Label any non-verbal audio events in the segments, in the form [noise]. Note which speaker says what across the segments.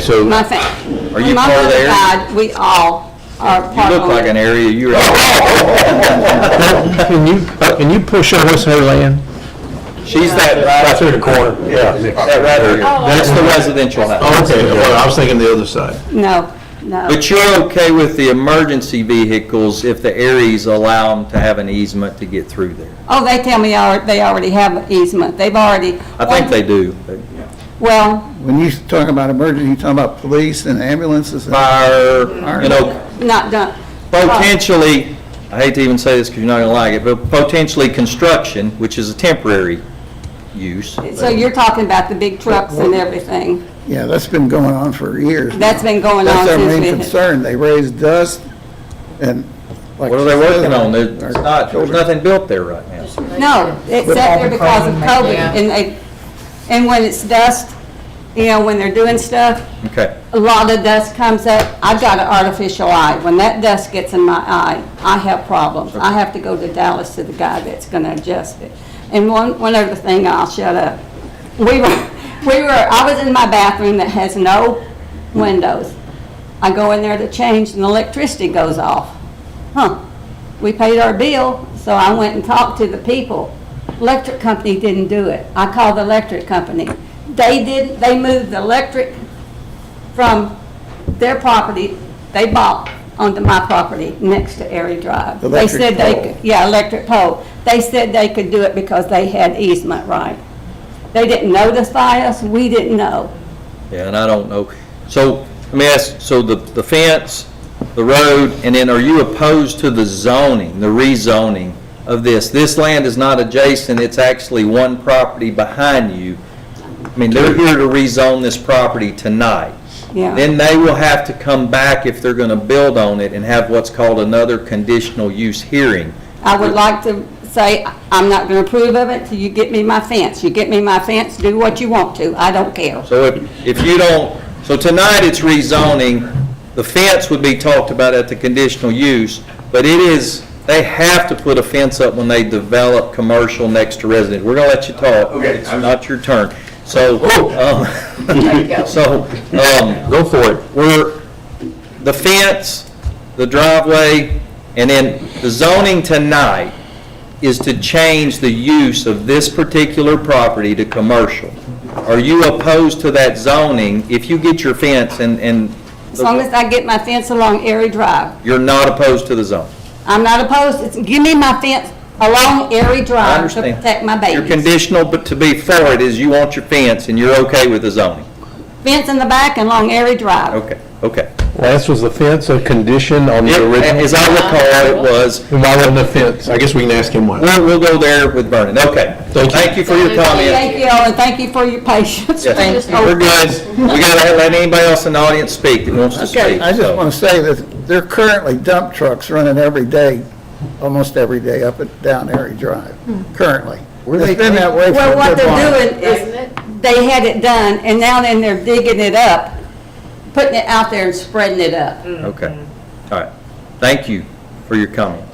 Speaker 1: so
Speaker 2: My fa-
Speaker 1: Are you
Speaker 2: my
Speaker 1: part of
Speaker 2: mother
Speaker 1: there?
Speaker 2: died, we all are
Speaker 1: you
Speaker 2: part
Speaker 1: look like
Speaker 2: owner.
Speaker 1: an area you're.
Speaker 3: Can you, can you push on what's her land?
Speaker 1: She's that
Speaker 4: Right
Speaker 1: right,
Speaker 4: through the corner, yeah.
Speaker 1: that Oh, right here.
Speaker 2: Oh.
Speaker 1: Oh. That's the residential house.
Speaker 3: Oh, Okay, well, I was thinking the other side.
Speaker 2: No, no.
Speaker 1: But you're okay with the emergency vehicles if the Aries allow them to have an easement to get through there?
Speaker 2: Oh, they tell me al- they already have an easement. They've already.
Speaker 1: I think they do.
Speaker 2: Well,
Speaker 5: When you talk about emergency, you're talking about police and ambulances? and-
Speaker 1: Fire, you know,
Speaker 2: not done.
Speaker 1: potentially, I hate to even say this because you're not going to like it, but potentially construction, which is a temporary use.
Speaker 2: So you're talking about the big trucks and everything.
Speaker 5: Yeah, that's been going on for years.
Speaker 2: That's been going on
Speaker 5: That's their
Speaker 2: since
Speaker 5: main
Speaker 2: we.
Speaker 5: concern. They raise dust and like.
Speaker 1: What are they working on? There's
Speaker 5: Our
Speaker 1: not, there's
Speaker 5: children.
Speaker 1: nothing built there right now.
Speaker 2: No, it's sat there because of COVID,
Speaker 6: Yeah.
Speaker 2: and they, and when it's dust, you know, when they're doing stuff,
Speaker 1: Okay.
Speaker 2: a lot of dust comes up. I've got an artificial eye. When that dust gets in my eye, I have problems. I have to go to Dallas to the guy that's gonna adjust it. And one, one other thing, I'll shut up. We were, [laughs] we were, I was in my bathroom that has no windows. I go in there to change and the electricity goes off. Huh, we paid our bill, so I went and talked to the people. Electric company didn't do it. I called the electric company. They did, they moved the electric from their property they bought onto my property next to Airy Drive. They
Speaker 5: Electric
Speaker 2: said they
Speaker 5: pole.
Speaker 2: could- Yeah, electric pole. They said they could do it because they had easement right. They didn't notify us, we didn't know.
Speaker 1: Yeah, and I don't know. So, let me ask, so the, the fence, the road, and then are you opposed to the zoning, the rezoning of this? This land is not adjacent, it's actually one property behind you. I mean, they're here to rezone this property tonight.
Speaker 2: Yeah.
Speaker 1: Then they will have to come back if they're gonna build on it and have what's called another conditional use hearing.
Speaker 2: I would like to say, I'm not going to approve of it till you get me my fence. You get me my fence, do what you want to, I don't care.
Speaker 1: So if, if you don't, so tonight it's rezoning, the fence would be talked about at the conditional use, but it is, they have to put a fence up when they develop commercial next to resident. We're gonna let you talk.
Speaker 4: Okay.
Speaker 1: It's not your turn. So, um, [laughs] so, um,
Speaker 3: Go for it.
Speaker 1: we're, the fence, the driveway, and then the zoning tonight is to change the use of this particular property to commercial. Are you opposed to that zoning if you get your fence and, and
Speaker 2: As long as I get my fence along Airy Drive.
Speaker 1: you're not opposed to the zone?
Speaker 2: I'm not opposed, it's, give me my fence along Airy
Speaker 1: I
Speaker 2: Drive to
Speaker 1: understand.
Speaker 2: protect my
Speaker 1: Your
Speaker 2: babies.
Speaker 1: conditional, but to be for it is you want your fence and you're okay with the zoning?
Speaker 2: Fence in the back and along Airy Drive.
Speaker 1: Okay, okay.
Speaker 3: Last was the fence, a condition on the original?
Speaker 1: As I recall, it was,
Speaker 3: And Why wasn't the fence? I guess we can ask him why.
Speaker 1: We'll, we'll go there with Vernon, okay.
Speaker 3: Thank you.
Speaker 1: Thank you for your comments.
Speaker 2: Thank you all, and thank you for your patience.
Speaker 1: Yes, We're good. We gotta let anybody else in the audience speak that wants to
Speaker 5: Okay,
Speaker 1: speak.
Speaker 5: I just
Speaker 1: so.
Speaker 5: want to say that there are currently dump trucks running every day, almost every day up and down Erie Drive, currently. It's been that way for a good
Speaker 2: Well,
Speaker 5: while.
Speaker 2: what they're doing is, they had it done, and now then they're digging it up, putting it out there and spreading it up.
Speaker 1: Okay, all right. Thank you for your comments.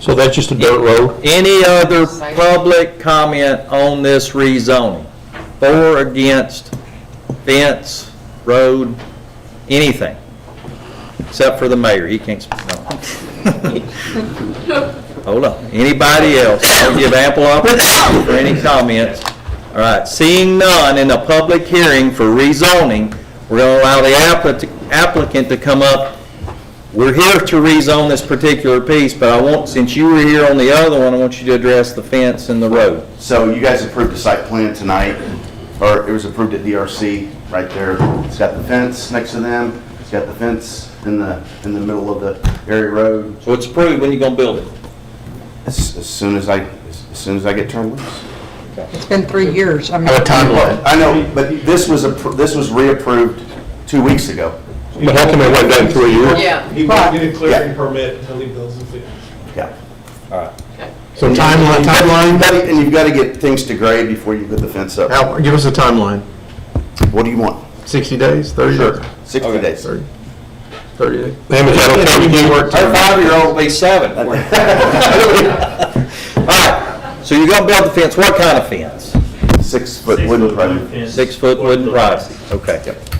Speaker 3: So that's just a dirt road?
Speaker 1: Any other public comment on this rezoning? For, against, fence, road, anything? Except for the mayor, he can't speak. no. Hold on, anybody else? I'll give ample opportunity for any comments. All right, seeing none in a public hearing for rezoning, we're going to allow the applic- applicant to come up we're here to rezone this particular piece, but I want, since you were here on the other one, I want you to address the fence and the road.
Speaker 7: So you guys approved the site plan tonight, or it was approved at DRC, right there. It's got the fence next to them, it's got the fence in the, in the middle of the area road.
Speaker 1: So it's approved, when you gonna build it?
Speaker 7: As as soon as I, as soon as I get turned loose.
Speaker 6: It's been three years. I mean,
Speaker 3: timeline.
Speaker 7: I know, but this was, appro- this was reapproved two weeks ago.
Speaker 3: But how come it went down three years?
Speaker 6: yeah.
Speaker 4: He won't get a
Speaker 7: Yeah.
Speaker 4: clearing permit until he builds the fence.
Speaker 7: Yeah.
Speaker 3: So timeline, timeline,
Speaker 7: And you've got to get things to grade before you put the fence up.
Speaker 3: How- give us a timeline.
Speaker 7: What do you want?
Speaker 3: 60 days, 30 days?
Speaker 7: 60 days.
Speaker 3: 30 days. Damn, is that okay with you?
Speaker 1: Her five-year-old will be seven. [laughs] All right, so you're gonna build the fence, what kind of fence?
Speaker 7: Six-foot wooden frame.
Speaker 1: Six-foot wooden privacy, okay.